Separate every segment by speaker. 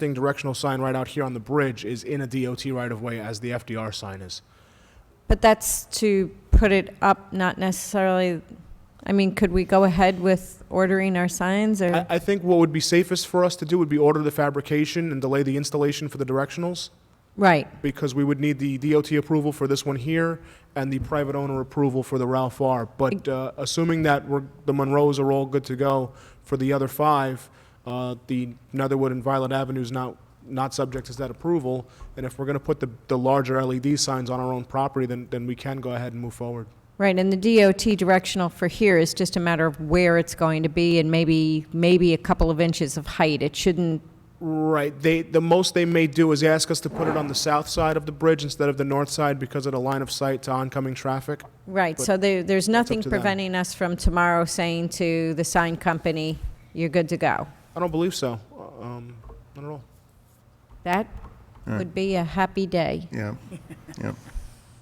Speaker 1: thing directional sign right out here on the bridge is in a DOT right of way as the FDR sign is.
Speaker 2: But that's to put it up, not necessarily, I mean, could we go ahead with ordering our signs
Speaker 1: I,
Speaker 2: or?
Speaker 1: I think what would be safest for us to do would be order the fabrication and delay the installation for the directionals
Speaker 2: Right,
Speaker 1: because we would need the DOT approval for this one here and the private owner approval for the Ralph R. But uh, assuming that we're, the Monroes are all good to go for the other five, uh, the Netherwood and Violet Avenue's not not subject to that approval. And if we're going to put the, the larger LED signs on our own property, then then we can go ahead and move forward.
Speaker 2: right, and the DOT directional for here is just a matter of where it's going to be and maybe, maybe a couple of inches of height. It shouldn't,
Speaker 1: Right. They, the most they may do is ask us to put it on the south side of the bridge instead of the north side because of the line of sight to oncoming traffic.
Speaker 2: right,
Speaker 1: But
Speaker 2: so there, there's nothing
Speaker 1: to them.
Speaker 2: preventing us from tomorrow saying to the sign company, you're good to go.
Speaker 1: I don't believe so. Um, not at all.
Speaker 2: That
Speaker 3: All right.
Speaker 2: would be a happy day.
Speaker 3: Yeah, yeah.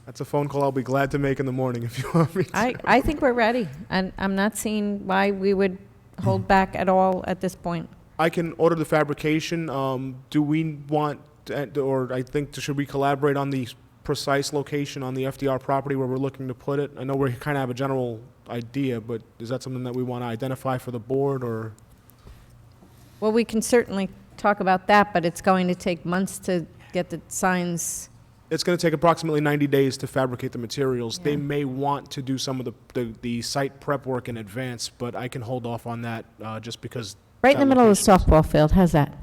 Speaker 1: That's a phone call I'll be glad to make in the morning if you want me to.
Speaker 2: I, I think we're ready, and I'm not seeing why we would
Speaker 1: Mm.
Speaker 2: hold back at all at this point.
Speaker 1: I can order the fabrication. Um, do we want, to- or I think, should we collaborate on the precise location on the FDR property where we're looking to put it? I know we kind of have a general idea, but is that something that we want to identify for the board or?
Speaker 2: Well, we can certainly talk about that, but it's going to take months to get the signs.
Speaker 1: It's going to take approximately 90 days to fabricate the materials. They
Speaker 2: Yeah.
Speaker 1: may want to do some of the, the, the site prep work in advance, but I can hold off on that uh, just because
Speaker 2: Right in the
Speaker 1: That
Speaker 2: middle of the softball field, how's that?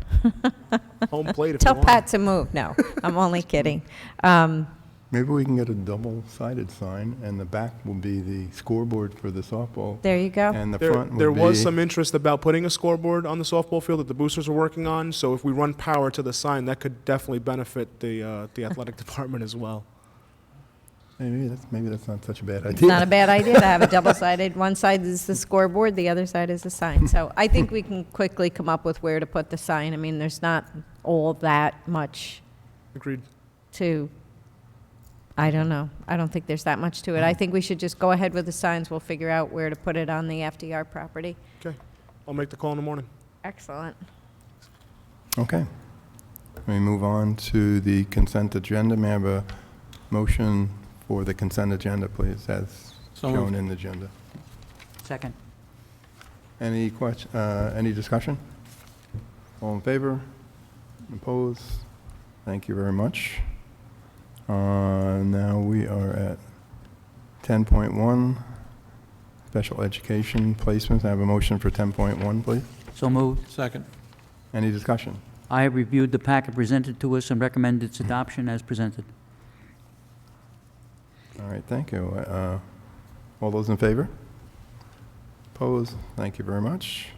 Speaker 1: home plate if you
Speaker 2: Tell
Speaker 1: want.
Speaker 2: Pat to move, no, I'm only kidding. Um,
Speaker 3: Maybe we can get a double-sided sign, and the back will be the scoreboard for the softball,
Speaker 2: There you go.
Speaker 3: and the
Speaker 1: There,
Speaker 3: front
Speaker 1: there
Speaker 3: will
Speaker 1: was
Speaker 3: be
Speaker 1: some interest about putting a scoreboard on the softball field that the boosters are working on, so if we run power to the sign, that could definitely benefit the, uh, the athletic department as well.
Speaker 3: Maybe that's, maybe that's not such a bad idea.
Speaker 2: Not a bad idea to have a double-sided, one side is the scoreboard, the other side is the sign. So I think we can quickly come up with where to put the sign. I mean, there's not all that much
Speaker 1: Agreed.
Speaker 2: to, I don't know. I don't think there's that much to it. I think we should just go ahead with the signs. We'll figure out where to put it on the FDR property.
Speaker 1: Okay. I'll make the call in the morning.
Speaker 2: Excellent.
Speaker 3: Okay. We move on to the consent agenda. May I have a motion for the consent agenda, please, as
Speaker 4: So
Speaker 3: shown in the agenda?
Speaker 5: Second.
Speaker 3: Any question, any discussion? All in favor? Opposed? Thank you very much. Uh, Now we are at 10.1, special education placements. I have a motion for 10.1, please.
Speaker 5: So moved.
Speaker 4: Second.
Speaker 3: Any discussion?
Speaker 5: I have reviewed the packet presented to us and recommend its adoption as presented.
Speaker 3: All right, thank you. Uh, All those in favor? Opposed? Thank you very much.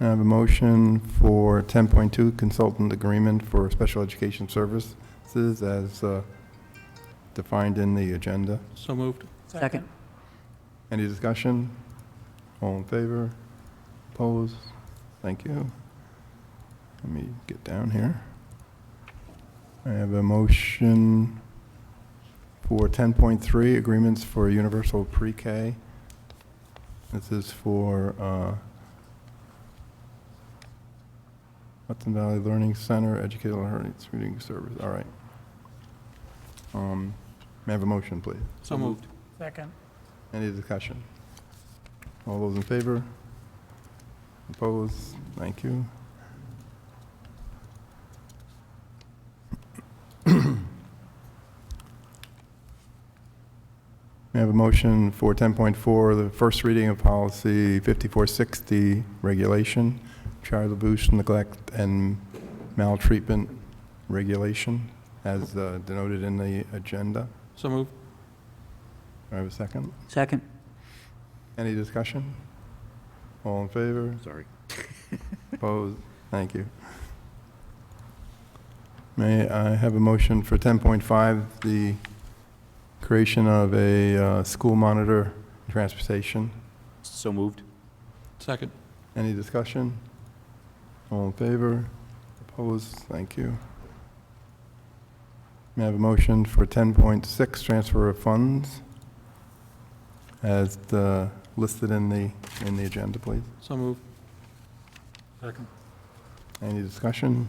Speaker 3: I have a motion for 10.2 consultant agreement for special education services as uh, defined in the agenda.
Speaker 4: So moved.
Speaker 5: Second.
Speaker 3: Any discussion? All in favor? Opposed? Thank you. Let me get down here. I have a motion for 10.3, agreements for universal pre-K. This is for uh, Hudson Valley Learning Center Educational Learning Reading Service, all right. Um, May I have a motion, please?
Speaker 4: So moved.
Speaker 6: Second.
Speaker 3: Any discussion? All those in favor? Opposed? Thank you. We have a motion for 10.4, the first reading of policy 5460, regulation, child abuse, neglect, and maltreatment regulation, as uh, denoted in the agenda.
Speaker 4: So moved.
Speaker 3: Do I have a second?
Speaker 5: Second.
Speaker 3: Any discussion? All in favor?
Speaker 4: Sorry.
Speaker 3: Opposed? Thank you. May I have a motion for 10.5, the creation of a uh, school monitor in transportation?
Speaker 7: So moved.
Speaker 4: Second.
Speaker 3: Any discussion? All in favor? Opposed? Thank you. May I have a motion for 10.6, transfer of funds, as uh, listed in the, in the agenda, please?
Speaker 4: So moved. Second.
Speaker 3: Any discussion?